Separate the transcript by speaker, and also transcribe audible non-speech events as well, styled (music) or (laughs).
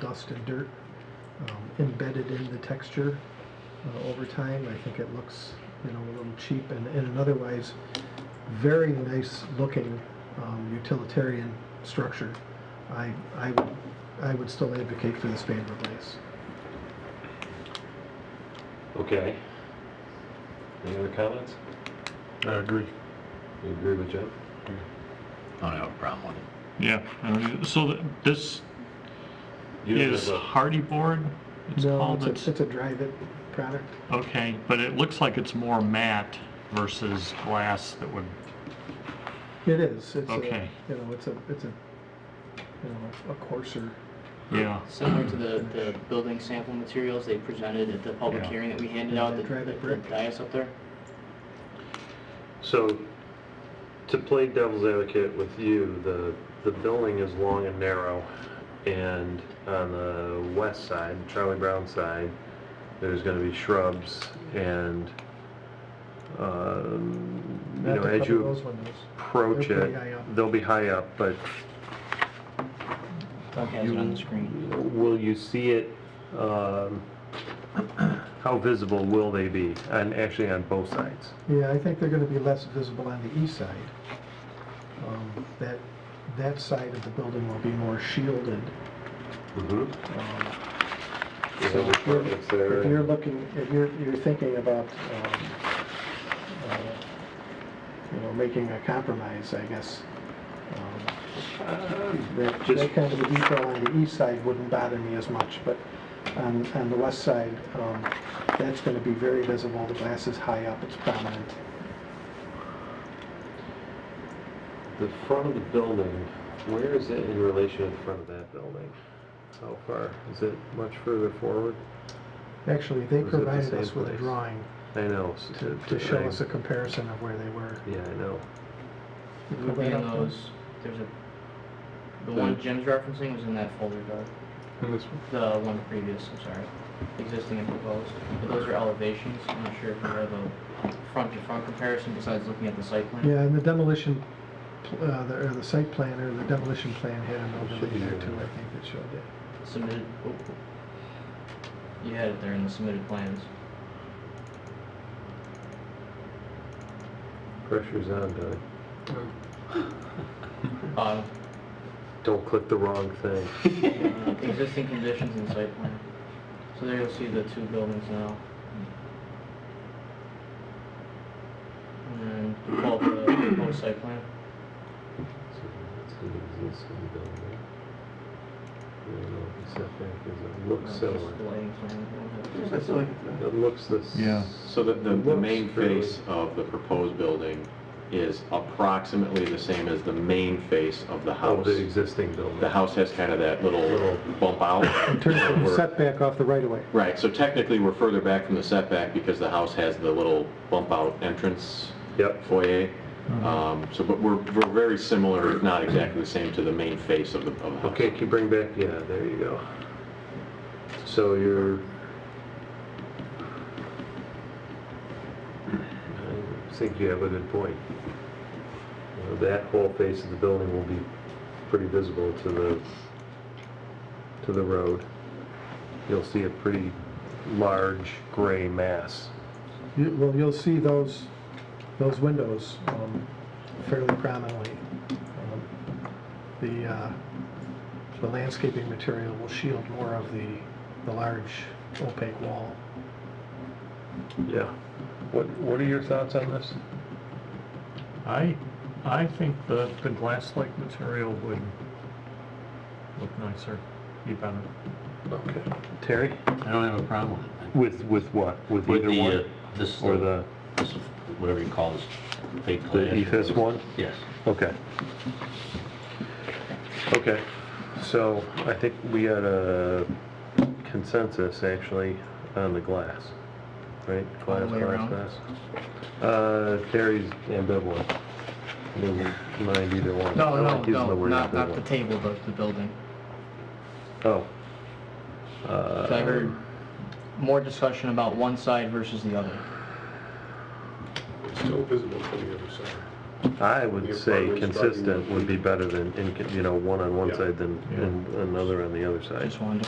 Speaker 1: dust and dirt um, embedded in the texture uh, over time. I think it looks, you know, a little cheap and, and an otherwise very nice looking um, utilitarian structure. I, I, would- I would still advocate for this Vanderbilt Place.
Speaker 2: Okay. Any other comments?
Speaker 3: I agree.
Speaker 2: You agree with Jeff?
Speaker 4: I don't have a problem with it.
Speaker 3: Yeah, I mean, so th- this
Speaker 2: You don't
Speaker 3: is
Speaker 2: have a-
Speaker 3: hardy board? It's
Speaker 1: No,
Speaker 3: called?
Speaker 1: it's a, it's a drive-it product.
Speaker 3: Okay, but it looks like it's more matte versus glass that would,
Speaker 1: It is. It's a,
Speaker 3: Okay.
Speaker 1: You know, it's a, it's a, you know, a coarser.
Speaker 3: yeah,
Speaker 5: Similar to the, the building sample materials they presented at the public
Speaker 3: Yeah.
Speaker 5: hearing that we handed out, the,
Speaker 1: Drive it
Speaker 5: the
Speaker 1: brick.
Speaker 5: dais up there.
Speaker 2: So, to play devil's advocate with you, the, the building is long and narrow, and on the west side, Charlie Brown side, there's gonna be shrubs and, um, you
Speaker 1: Not
Speaker 2: know,
Speaker 1: to
Speaker 2: as
Speaker 1: cover
Speaker 2: you
Speaker 1: Those windows.
Speaker 2: approach
Speaker 1: They're pretty high
Speaker 2: it,
Speaker 1: up.
Speaker 2: they'll be high up, but
Speaker 5: Doug has it on the screen.
Speaker 2: will you see it, um, how visible will they be, and actually on both sides?
Speaker 1: Yeah, I think they're gonna be less visible on the east side. Um, That, that side of the building will be more shielded.
Speaker 2: Mm-hmm.
Speaker 1: um,
Speaker 2: You
Speaker 1: So
Speaker 2: have
Speaker 1: if you're,
Speaker 2: apartments there.
Speaker 1: if you're looking, if you're, you're thinking about, um, uh, you know, making a compromise, I guess, um, that,
Speaker 2: just-
Speaker 1: that kind of a detail on the east side wouldn't bother me as much, but on, on the west side, um, that's gonna be very visible, the glass is high up, it's prominent.
Speaker 2: The front of the building, where is it in relation to the front of that building? How far? Is it much further forward?
Speaker 1: Actually, they
Speaker 2: Or is it the
Speaker 1: provided
Speaker 2: same
Speaker 1: us with a
Speaker 2: place?
Speaker 1: drawing
Speaker 2: I know. s-
Speaker 1: to, to show
Speaker 2: I-
Speaker 1: us a comparison of where they were.
Speaker 2: Yeah, I know.
Speaker 1: You
Speaker 5: It
Speaker 1: go
Speaker 5: would be
Speaker 1: right
Speaker 5: in
Speaker 1: up to it.
Speaker 5: those, there's a, the one Jim's referencing was in that folder, Doug. The one previous, I'm sorry, existing and proposed. But those are elevations, I'm not sure if we have a front-to-front comparison besides looking at the site plan.
Speaker 1: Yeah, and the demolition, pl- uh, the, or the site plan, or the demolition plan had an overlay there too, I think that showed it.
Speaker 5: Submitted, oh, you had it there in the submitted plans.
Speaker 2: Pressure's on, Doug.
Speaker 5: Bottom,
Speaker 2: Don't click the wrong (laughs) thing.
Speaker 5: uh, existing conditions and site plan. So there you'll see the two buildings now. And then pull up the proposed site plan.
Speaker 2: So that's an existing building. I don't know what the setback is. It
Speaker 5: Uh,
Speaker 2: looks
Speaker 5: just
Speaker 2: similar.
Speaker 5: the lighting plan. we don't have-
Speaker 2: It looks this.
Speaker 3: Yeah.
Speaker 6: So the, the, the
Speaker 2: Looks
Speaker 6: main
Speaker 2: fairly-
Speaker 6: face of the proposed building is approximately the same as the main face of the
Speaker 2: Of
Speaker 1: Oh,
Speaker 6: house.
Speaker 2: Oh, the existing building.
Speaker 6: The house has kind of that little
Speaker 2: Little-
Speaker 6: bump out.
Speaker 1: (laughs) In terms of the
Speaker 6: We're-
Speaker 1: setback off the right of way.
Speaker 6: Right, so technically, we're further back from the setback because the house has the little bump out entrance
Speaker 2: Yep.
Speaker 6: foyer.
Speaker 1: Mm-hmm.
Speaker 6: Um, So, but we're, we're very similar, if not exactly the same, to the main face of the, of the house.
Speaker 2: Okay, can you bring back, yeah, there you go. So you're... I think you have a good point. You know, That whole face of the building will be pretty visible to the, to the road. You'll see a pretty large gray mass.
Speaker 1: You- Well, you'll see those, those windows um, fairly prominently. Um, The, uh, the landscaping material will shield more of the, the large opaque wall.
Speaker 2: Yeah. What, what are your thoughts on this?
Speaker 3: I, I think the, the glass-like material would look nicer, be better.
Speaker 2: Okay. Terry?
Speaker 4: I don't have a problem with it.
Speaker 2: With, with what? With
Speaker 4: With
Speaker 2: either
Speaker 4: the, uh,
Speaker 2: one?
Speaker 4: this,
Speaker 2: Or the,
Speaker 4: this, whatever you call this, fake glass.
Speaker 2: the ethos one?
Speaker 4: Yes.
Speaker 2: Okay. Okay, so I think we had a consensus actually on the glass, right?
Speaker 5: All the
Speaker 2: Glass,
Speaker 5: way
Speaker 2: glass,
Speaker 5: around?
Speaker 2: glass. Uh, Terry's ambivalent. Doesn't mind either one. I
Speaker 5: No,
Speaker 2: like
Speaker 5: no,
Speaker 2: using the
Speaker 5: no,
Speaker 2: word
Speaker 5: not, not the
Speaker 2: ambivalent.
Speaker 5: table, but the building.
Speaker 2: Oh.
Speaker 5: 'Cause I
Speaker 2: Uh,
Speaker 5: heard more discussion about one side versus the other.
Speaker 7: Still visible from the other side.
Speaker 2: I would
Speaker 7: Your
Speaker 2: say
Speaker 7: apartment's
Speaker 2: consistent would be better than, incon- you know, one on one
Speaker 7: Yeah.
Speaker 2: side than,
Speaker 3: Yeah.
Speaker 2: and another on the other side.
Speaker 5: Just wanted to